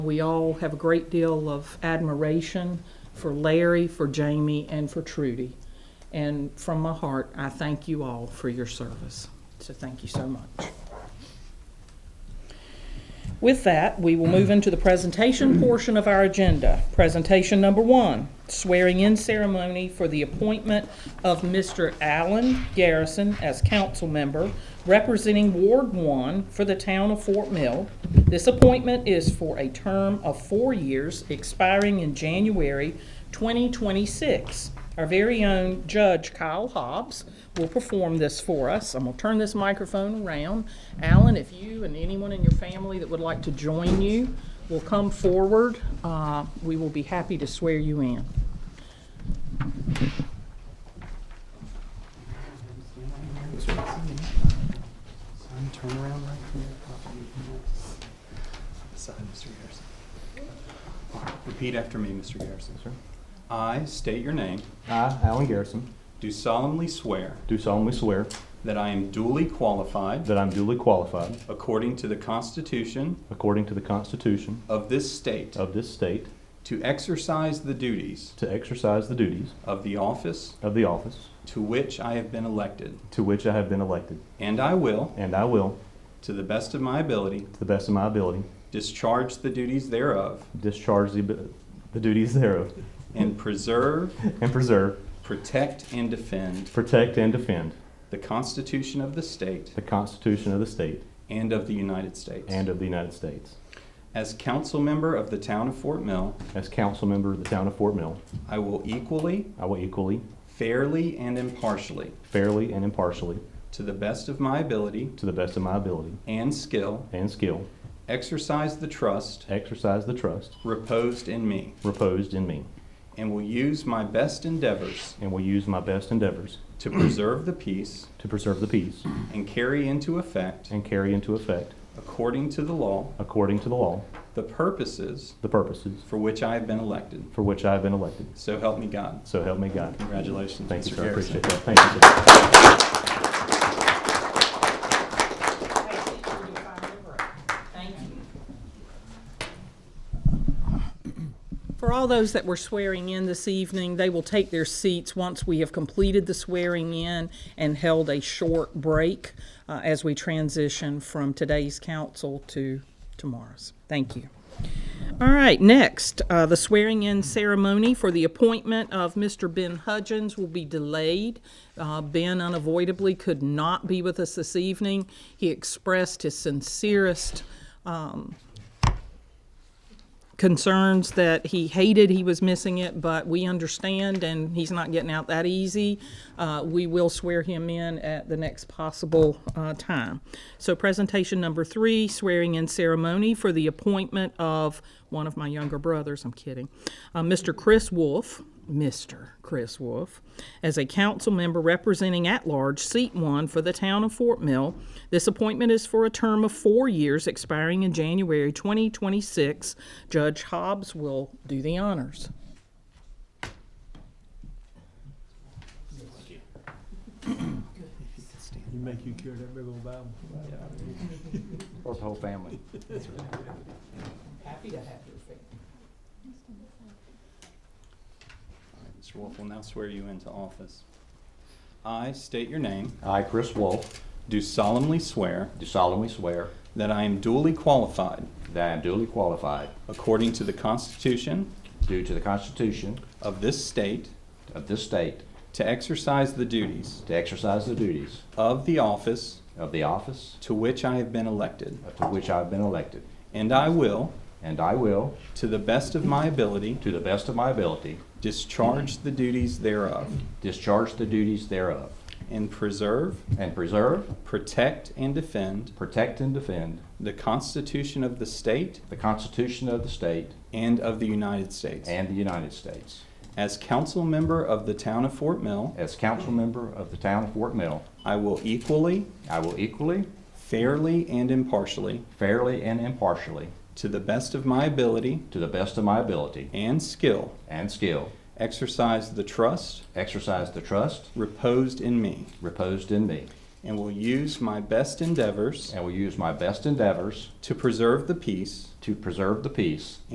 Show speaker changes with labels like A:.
A: We all have a great deal of admiration for Larry, for Jamie, and for Trudy. And from my heart, I thank you all for your service. So thank you so much. With that, we will move into the presentation portion of our agenda. Presentation number one, swearing-in ceremony for the appointment of Mr. Allen Garrison as council member representing Ward One for the town of Fort Mill. This appointment is for a term of four years, expiring in January 2026. Our very own Judge Kyle Hobbs will perform this for us. I'm going to turn this microphone around. Alan, if you and anyone in your family that would like to join you will come forward, uh, we will be happy to swear you in.
B: Son, turn around right here. Side, Mr. Garrison. Repeat after me, Mr. Garrison.
C: Sir.
B: I state your name,
C: I, Alan Garrison,
B: do solemnly swear
C: do solemnly swear
B: that I am duly qualified,
C: that I'm duly qualified,
B: according to the Constitution
C: according to the Constitution
B: of this state,
C: of this state,
B: to exercise the duties
C: to exercise the duties
B: of the office
C: of the office
B: to which I have been elected,
C: to which I have been elected,
B: and I will,
C: and I will,
B: to the best of my ability,
C: to the best of my ability,
B: discharge the duties thereof,
C: discharge the the duties thereof,
B: and preserve,
C: and preserve,
B: protect, and defend
C: protect, and defend
B: the Constitution of the state
C: the Constitution of the state
B: and of the United States.
C: and of the United States.
B: As council member of the town of Fort Mill,
C: As council member of the town of Fort Mill,
B: I will equally,
C: I will equally,
B: fairly, and impartially,
C: fairly, and impartially,
B: to the best of my ability
C: to the best of my ability
B: and skill,
C: and skill,
B: exercise the trust
C: exercise the trust
B: reposed in me,
C: reposed in me,
B: and will use my best endeavors
C: and will use my best endeavors
B: to preserve the peace
C: To preserve the peace.
B: and carry into effect,
C: And carry into effect,
B: according to the law,
C: according to the law,
B: the purposes
C: the purposes
B: for which I have been elected.
C: for which I have been elected.
B: So help me God.
C: So help me God.
B: Congratulations,
C: Thank you,
B: Mr.
C: sir. I
B: Garrison.
C: appreciate that. Thank you, sir.
A: For all those that were swearing in this evening, they will take their seats once we have completed the swearing in and held a short break uh, as we transition from today's council to tomorrow's. Thank you. All right, next, uh, the swearing in ceremony for the appointment of Mr. Ben Hudgens will be delayed. Uh, ben unavoidably could not be with us this evening. He expressed his sincerest concerns that he hated he was missing it, but we understand, and he's not getting out that easy. Uh, we will swear him in at the next possible uh, time. So, presentation number three swearing in ceremony for the appointment of one of my younger brothers, I'm kidding, uh, Mr. Chris Wolf. Mr. Chris Wolf, as a council member representing at large seat one for the town of Fort Mill. This appointment is for a term of four years expiring in January 2026. Judge Hobbs will do the honors.
D: You make you carry that big old Bible.
C: Or the whole family.
A: Happy to have your favor.
B: Mr. Wolf will now swear you into office. I state your name,
E: I, Chris Wolf,
B: do solemnly swear
E: do solemnly swear
B: that I am duly qualified,
E: that I am duly qualified,
B: according to the Constitution
E: due to the Constitution
B: of this state,
E: of this state,
B: to exercise the duties
E: to exercise the duties
B: of the office
E: of the office
B: to which I have been elected,
E: to which I have been elected,
B: and I will,
E: and I will,
B: to the best of my ability,
E: to the best of my ability,
B: discharge the duties thereof,
E: discharge the duties thereof,
B: and preserve,
E: and preserve,
B: protect, and defend
E: protect, and defend
B: the Constitution of the state
E: the Constitution of the state
B: and of the United States.
E: and the United States.
B: As council member of the town of Fort Mill,
E: As council member of the town of Fort Mill,
B: I will equally,
E: I will equally,
B: fairly, and impartially,
E: fairly, and impartially,
B: to the best of my ability
E: to the best of my ability
B: and skill,
E: and skill,
B: exercise the trust
E: exercise the trust
B: reposed in me,
E: reposed in me,
B: and will use my best endeavors
C: and will use my best endeavors
B: to preserve the peace
C: to preserve the peace